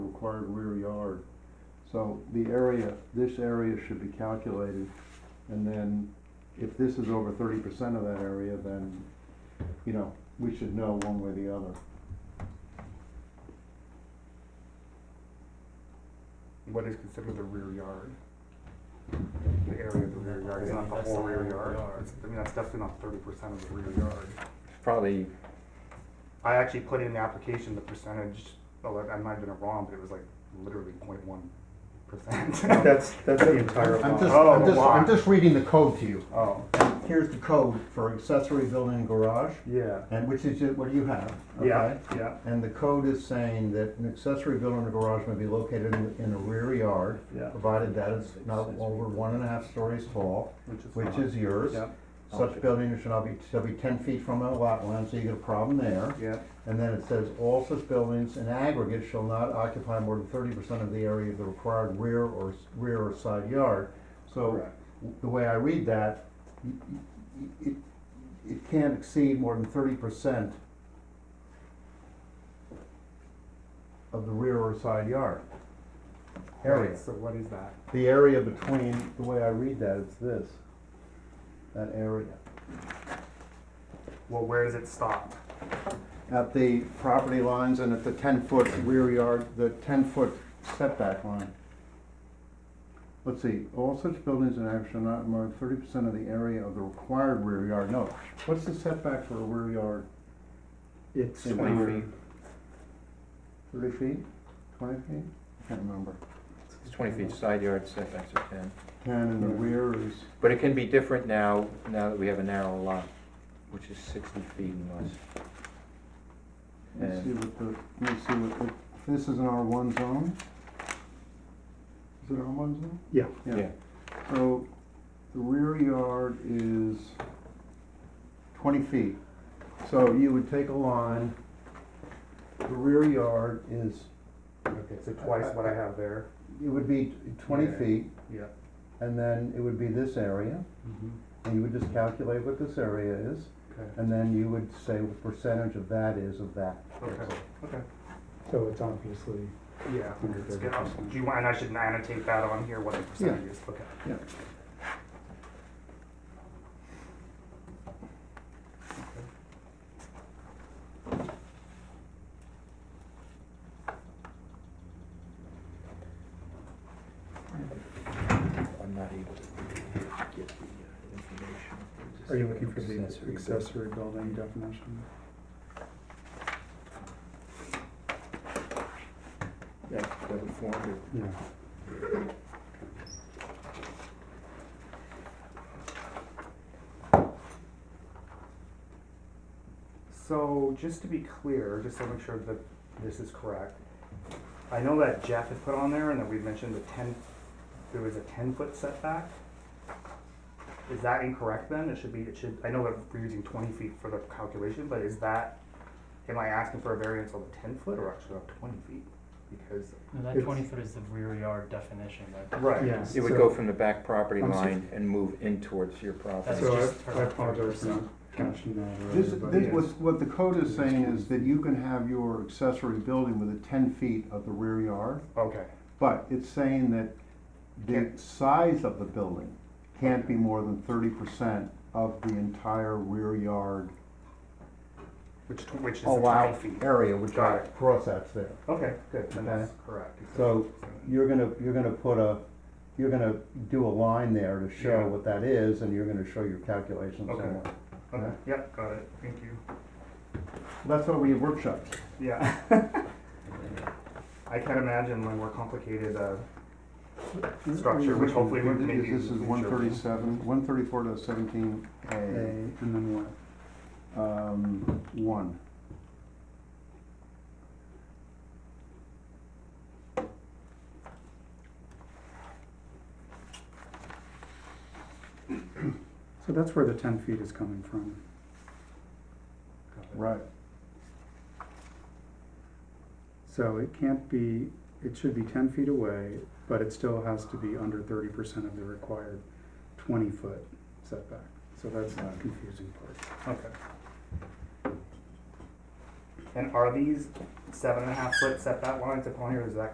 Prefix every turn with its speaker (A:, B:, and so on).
A: required rear yard. So the area, this area should be calculated, and then if this is over thirty percent of that area, then, you know, we should know one way or the other.
B: What is considered the rear yard? The area of the rear yard, it's not the
C: That's
B: whole
C: the
B: rear
C: whole
B: yard.
C: yard.
B: It's- I mean, that's definitely not thirty percent of the rear yard.
D: Probably,
B: I actually put in the application, the percentage, oh, I I might have done it wrong, but it was like literally point one percent.
D: that's, that's the entire
A: I'm
D: lot.
A: just,
B: Oh,
A: I'm just, I'm
B: lot.
A: just reading the code to you.
B: Oh,
A: Here's the code for accessory building and garage,
B: yeah,
A: and which is what you have,
B: yeah, yeah,
A: And the code is saying that an accessory building or garage may be located in, in a rear yard,
B: yeah.
A: provided that it's not over one and a half stories tall, which
B: fine.
A: is yours.
B: Uh-huh. Yeah,
A: Such building should not be, shall be ten feet from a lot line, so you get a problem there.
B: yeah,
A: And then it says, all such buildings in aggregate shall not occupy more than thirty percent of the area of the required rear or, s- rear or side yard. So,
B: correct.
A: the way I read that, y- y- y- it, it can't exceed more than thirty percent of the rear or side yard area.
B: Right, So what is that?
A: The area between, the way I read that, it's this, that area.
B: Well, where does it stop?
A: At the property lines and at the ten-foot rear yard, the ten-foot setback line. Let's see, all such buildings and acts shall not more than thirty percent of the area of the required rear yard, no. What's the setback for a rear yard?
B: It's
A: In
B: twenty
A: order-
B: feet.
A: Thirty feet, twenty feet? Can't remember.
D: It's twenty feet side yard setbacks are ten.
A: Ten and the rear is,
D: But it can be different now, now that we have a narrow lot, which is sixty feet and less.
A: let me see what the, let me see what, the- if this is an R one zone? Is it R one zone?
B: Yeah.
D: Yeah,
A: So the rear yard is twenty feet. So you would take a line, the rear yard is,
B: Okay, so twice what I have there.
A: it would be twenty
B: Yeah.
A: feet,
B: Yeah.
A: and then it would be this area, and you would just calculate what this area is,
B: Mm-hmm. Okay,
A: and then you would say what percentage of that is of that.
B: okay, okay.
C: So it's obviously.
B: Yeah,
C: Under
B: it's
C: thirty
B: good. I'll-
C: percent.
B: Do you want, and I should annotate that on here, what the percentage is, okay.
A: Yeah.
D: I'm not able to get the uh, information.
C: Are you looking for the accessory building definition?
D: Yeah, that would form it.
C: Yeah.
B: So, just to be clear, just to make sure that this is correct, I know that Jeff had put on there and that we mentioned the ten, there was a ten foot setback. Is that incorrect then? It should be, it should, I know that we're using twenty feet for the calculation, but is that, am I asking for a variance on the ten foot or actually on twenty feet? Because,
E: No, that
C: It's-
E: twenty foot is the rear yard definition, that,
B: right.
C: Yeah.
D: It would
C: so-
D: go from the back property
C: I'm so-
D: line and move in towards your property.
E: That's
C: So
E: just
C: I, I
E: her-
C: apologize for not catching that earlier.
A: This,
C: but
A: this,
C: yes.
A: what, what the code is saying is that you can have your accessory building within ten feet of the rear yard.
B: Okay,
A: But it's saying that the
B: Can't-
A: size of the building can't be more than thirty percent of the entire rear yard
B: which, tw- which is the twenty
A: allowed
B: feet.
A: area, which
B: Got
A: are
B: it.
A: crosshatch there.
B: Okay, good, then
A: Okay.
B: that's correct.
A: So you're gonna, you're gonna put a, you're gonna do a line there to
B: Yeah.
A: show what that is, and you're gonna show your calculations
B: Okay.
A: somewhere.
B: Okay, yep, got it, thank you.
A: That's why we have workshops.
B: Yeah. I can't imagine my more complicated, uh, structure, which hopefully would maybe.
A: This is one thirty-seven, one thirty-four to seventeen
C: A,
A: A,
C: and then what?
A: um, one.
C: So that's where the ten feet is coming from.
A: Right.
C: So it can't be, it should be ten feet away, but it still has to be under thirty percent of the required twenty foot setback. So that's the
A: Right.
C: confusing part.
B: Okay. And are these seven and a half foot setback lines upon here, is that